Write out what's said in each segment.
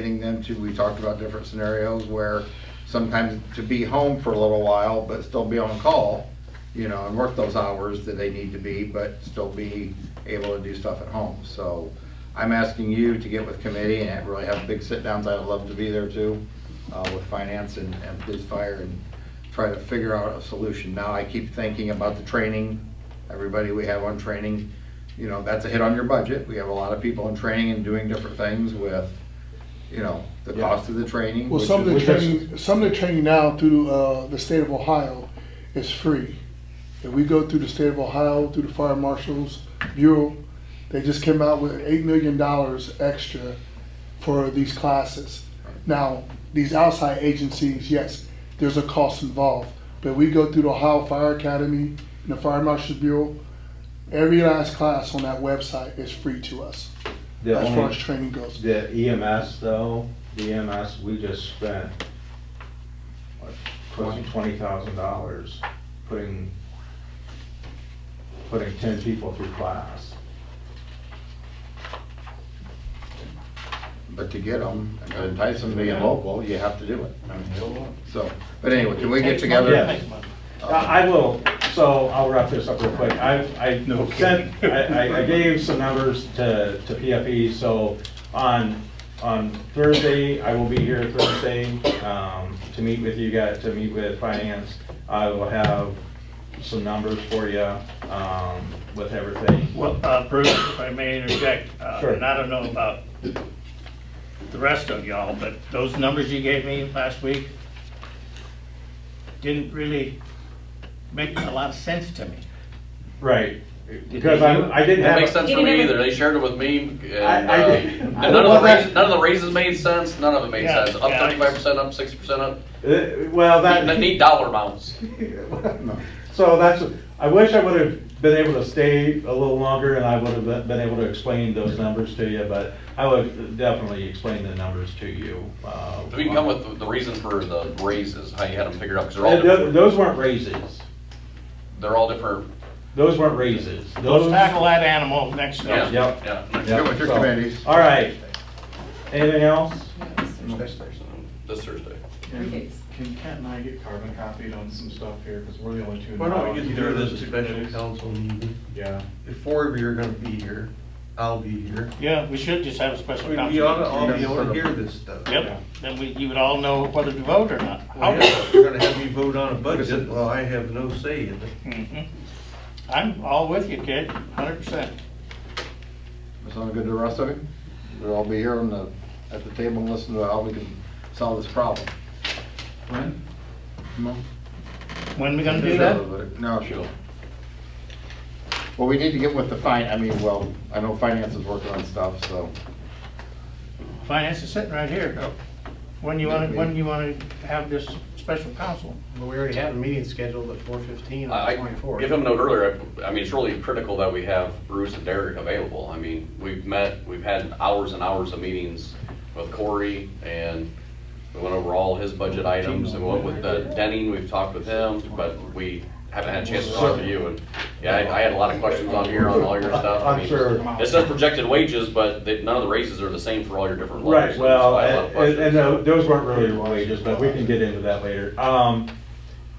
getting them to, we talked about different scenarios where sometimes to be home for a little while, but still be on call, you know, and work those hours that they need to be, but still be able to do stuff at home. So I'm asking you to get with committee and really have big sit-downs. I'd love to be there too, uh, with finance and, and police fire and try to figure out a solution. Now, I keep thinking about the training, everybody we have on training, you know, that's a hit on your budget. We have a lot of people in training and doing different things with, you know, the cost of the training. Well, which some of the is- training, some of the training now through uh, the state of Ohio is free. If we go through the state of Ohio, through the fire marshals bureau, they just came out with eight million dollars extra for these classes. Now, these outside agencies, yes, there's a cost involved, but we go through the Ohio Fire Academy and the Fire Marshals Bureau. Every last class on that website is free to us, The as far as only, training goes. the EMS though, the EMS, we just spent, what, close to twenty thousand dollars putting, putting ten people through class. But to get them, and to entice them to being local, you have to do it. I mean, So, but anyway, can we get together? Yes. I I will, so I'll wrap this up real quick. I, I sent, I, I- I gave some numbers to, to PFE, so on, on Thursday, I will be here Thursday, um, to meet with you guys, to meet with finance. I will have some numbers for you, um, with everything. Well, uh, Bruce, if I may interject, uh, Sure. and I don't know about the rest of y'all, but those numbers you gave me last week didn't really make a lot of sense to me. Right, because I'm, I didn't That makes have, sense for me either. They shared it with me, and, uh, I- I did- and none of Well, the that's- raises, none of the raises made sense. None of it made Yeah, sense. Up yeah, thirty-five percent, up sixty percent, up. Uh, well, that. That need dollar amounts. So that's, I wish I would have been able to stay a little longer and I would have been- been able to explain those numbers to you, but I would definitely explain the numbers to you. uh, We can come with the- the reason for the raises, how you had them figured out, because they're all Uh, tho- different. Those weren't raises. They're all different. Those weren't raises. Let's Those. tackle that animal next Yeah, time. Yep. yeah. yeah, Get with your so- committees. All right. Anything else? This Thursday. Three Can Kent and I get carbon copied on some stuff here, because we're the only two. in Why don't we town. get Either through of this those two special days. council meeting? Yeah. If four of you are gonna be here, I'll be here. Yeah, we should just have a special We council. we ought to meeting. all be able to hear this stuff. Yep, then we, you would all know whether to vote or not. Well, yeah, if You're gonna have me vote on a budget, well, I have no say in it. Mhm. I'm all with you, kid, hundred percent. Sound good to the rest of you? We'll all be here on the, at the table and listen to how we can solve this problem. When? No? When we gonna do that? No, sure. Well, we need to get with the fin, I mean, well, I know finance is working on stuff, so. Finance is sitting right here. When you wanna, when you wanna have this special council? Well, we already have a meeting scheduled at four fifteen on I, the I twenty-fourth. give him a note earlier, I I mean, it's really critical that we have Bruce and Derek available. I mean, we've met, we've had hours and hours of meetings with Corey, and we went over all his budget items, and went with the Denning, we've talked with him, but we haven't had a chance to talk to you, and, yeah, I, I had a lot of questions on here on all your stuff. I I'm mean, sure. It says projected wages, but they- none of the raises are the same for all your different levels. Right, and well, so I had a lot of and, and uh, questions. tho- those weren't really wages, but we can get into that later. Um,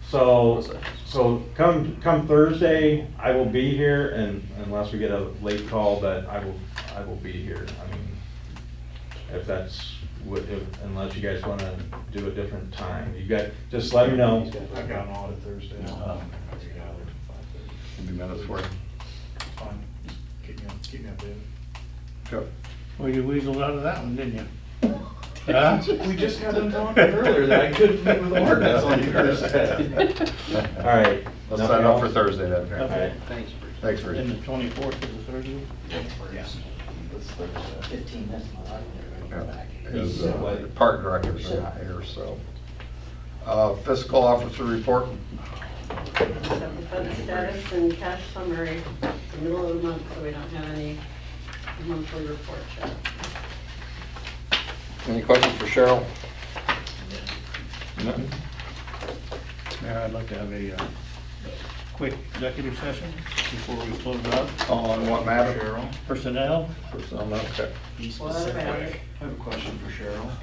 so, so come, come Thursday, I will be here and unless we get a late call, but I will, I will be here. I mean, if that's, what- if- unless you guys wanna do a different time, you got, just let me know. I've got an audit Thursday. Um, I think I'll- It'll be minutes for you. it's Fine, just keep me, keep me updated. Sure. Well, you weaseled out of that one, didn't you? Huh? We just had them talking earlier that I couldn't meet with ordinance on Thursday. All All right. Let's sign up for Thursday All then. right. Thanks, Bruce. Thanks, Rich. And the twenty-fourth to the thirtieth? That's Thursday. Fifteen, that's not. As uh, park directors are not here, so. Uh, Fiscal officer report, of the fund status and cash summary, it's the middle of the month, so we don't have any monthly report yet. any questions for Cheryl? None? Mayor, I'd like to have a uh, quick executive session before we close up. On what matter? Personnel, Personnel, okay. Be Well, that's specific. bad. I have a question for Cheryl.